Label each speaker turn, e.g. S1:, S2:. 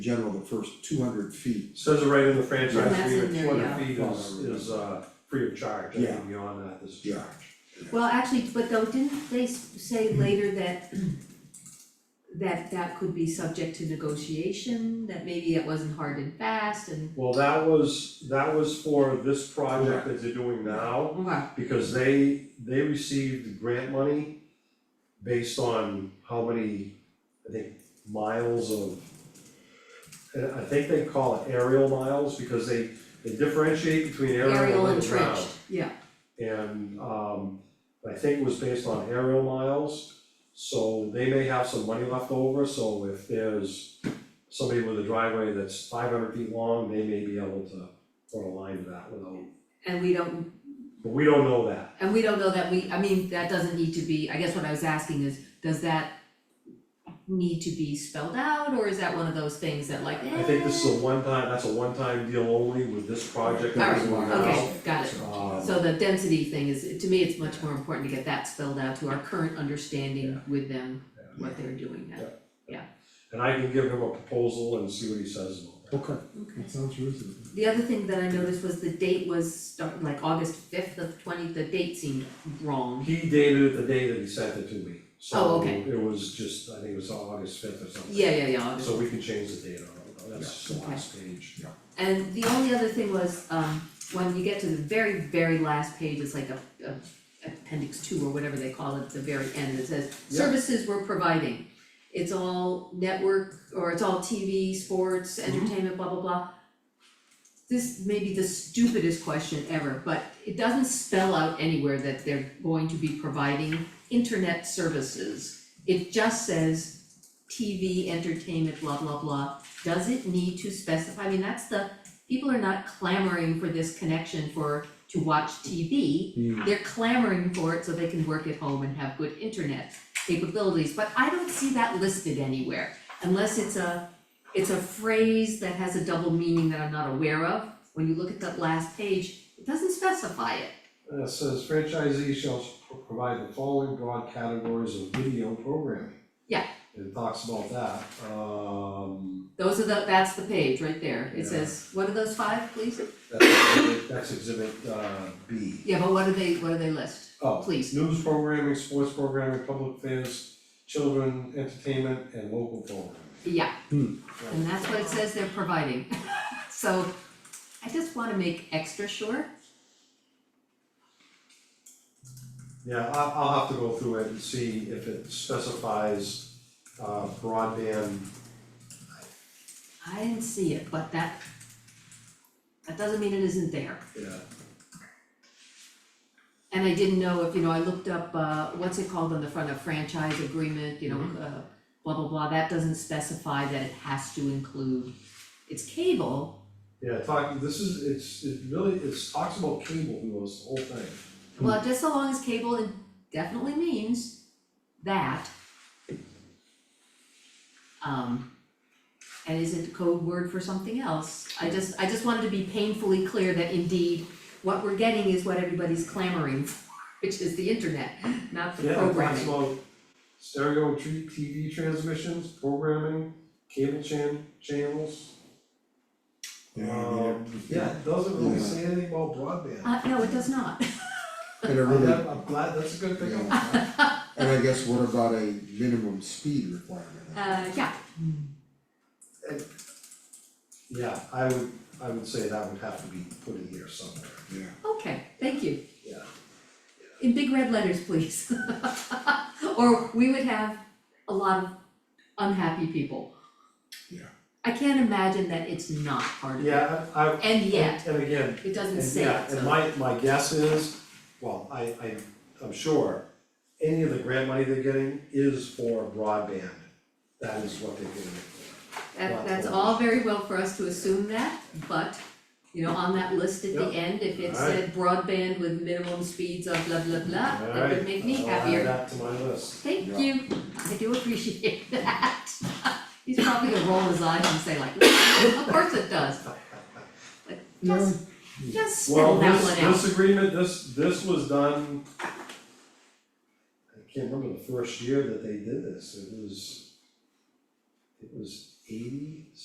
S1: general, the first two hundred feet.
S2: Says it right in
S1: Yeah.
S2: the franchise
S1: That's
S2: agreement,
S3: in
S2: two
S3: there,
S2: hundred
S1: yeah.
S2: feet is is uh free of charge,
S1: Yeah.
S2: anything beyond that is a
S1: Yeah.
S2: charge.
S3: Well, actually, but though, didn't they s- say later that that that could be subject to negotiation, that maybe it wasn't hard and fast and
S2: Well, that was, that was for this project that they're doing now,
S3: okay,
S2: because they they received grant money based on how many, I think, miles of and I think they call it aerial miles, because they they differentiate between aerial
S3: aerial
S2: and ground.
S3: entrenched, yeah.
S2: And um I think it was based on aerial miles, so they may have some money left over, so if there's somebody with a driveway that's five hundred feet long, they may be able to put a line to that without,
S3: And we don't,
S2: but we don't know that.
S3: and we don't know that we, I mean, that doesn't need to be, I guess what I was asking is, does that need to be spelled out, or is that one of those things that like,
S2: I think this is
S3: eh?
S2: a one-time, that's a one-time deal only with this project that we're doing
S3: Alright,
S2: now.
S3: okay, got it.
S2: Um,
S3: So the density thing is, to me, it's much more important to get that spelled out to our current understanding
S2: Yeah.
S3: with them, what they're doing now.
S2: And I can give him a proposal and see what he says about that.
S1: Okay,
S3: Okay.
S1: sounds reasonable.
S3: The other thing that I noticed was the date was start, like August fifth of twenty, the date seemed wrong.
S2: He dated it the day that he sent it to me,
S3: Oh,
S2: so
S3: okay.
S2: it was just, I think it was August fifth or something.
S3: Yeah, yeah, yeah, August.
S2: So we can change the date on it, that's the last page.
S3: And the only other thing was, um, when you get to the very, very last page, it's like a, a appendix two or whatever they call it, at the very end, it says,
S2: Yeah.
S3: services we're providing. It's all network, or it's all TV, sports, entertainment, blah, blah, blah. This may be the stupidest question ever, but it doesn't spell out anywhere that they're going to be providing internet services. It just says TV, entertainment, blah, blah, blah, does it need to specify, I mean, that's the, people are not clamoring for this connection for, to watch TV.
S1: Hmm.
S3: They're clamoring for it so they can work at home and have good internet capabilities, but I don't see that listed anywhere. Unless it's a, it's a phrase that has a double meaning that I'm not aware of, when you look at that last page, it doesn't specify it.
S2: Uh, it says franchisee shall pro- provide the following broad categories of video programming.
S3: Yeah.
S2: It talks about that, um,
S3: Those are the, that's the page right there,
S2: Yeah.
S3: it says, what are those five, please?
S2: that's exhibit, that's exhibit, uh, B.
S3: Yeah, but what do they, what do they list,
S2: Oh,
S3: please?
S2: news programming, sports programming, public affairs, children, entertainment, and local programming.
S3: Yeah,
S2: Right.
S3: And that's what it says they're providing. So I just wanna make extra sure.
S2: Yeah, I, I'll have to go through it and see if it specifies, uh, broadband
S3: I didn't see it, but that that doesn't mean it isn't there.
S2: Yeah.
S3: And I didn't know if, you know, I looked up uh what's it called on the front of franchise agreement, you know, uh blah blah blah, that doesn't specify that it has to include. It's cable,
S2: Yeah, talk, this is, it's, it really, it's talks about cable, who knows, the whole thing.
S3: well, just so long as cable definitely means that. Um, And is it code word for something else? I just, I just wanted to be painfully clear that indeed, what we're getting is what everybody's clamoring for, which is the internet, not the
S2: Yeah, it talks
S3: programming.
S2: about stereo tr- TV transmissions, programming, cable chan- channels.
S1: Yeah, I mean,
S2: Um, Yeah, it doesn't really
S1: Yeah.
S2: say anything about broadband.
S3: Uh, no, it does not.
S1: And I
S2: I'm
S1: really,
S2: glad- I'm glad, that's a good thing. I'm
S1: Yeah.
S2: glad.
S1: and I guess what about a minimum speed requirement?
S3: Uh, yeah,
S2: Yeah, I would, I would say that would have to be put in here somewhere.
S1: Yeah,
S3: okay, thank you.
S2: Yeah.
S3: In big red letters, please. Or we would have a lot of unhappy people.
S1: Yeah.
S3: I can't imagine that it's not part of it.
S2: Yeah, I, I-
S3: And yet,
S2: and again,
S3: it doesn't
S2: And
S3: say
S2: yeah,
S3: it,
S2: and
S3: so,
S2: my my guess is, well, I I I'm sure, any of the grant money they're getting is for broadband. That is what they're getting it for.
S3: that, that's all very well for us to assume that, but, you know, on that list at the
S2: Yep.
S3: end, if it
S2: All right.
S3: said broadband with minimum speeds of blah, blah, blah, that would make me
S2: Alright, I'll add
S3: happier.
S2: that to my list.
S3: Thank
S1: Yeah.
S3: you, I do appreciate that. He's probably gonna roll his eyes and say like, of course it does, but just, just
S2: Well,
S3: spell that
S2: this
S3: one out.
S2: this agreement, this this was done. I can't remember the first year that they did this, it was. It was eighty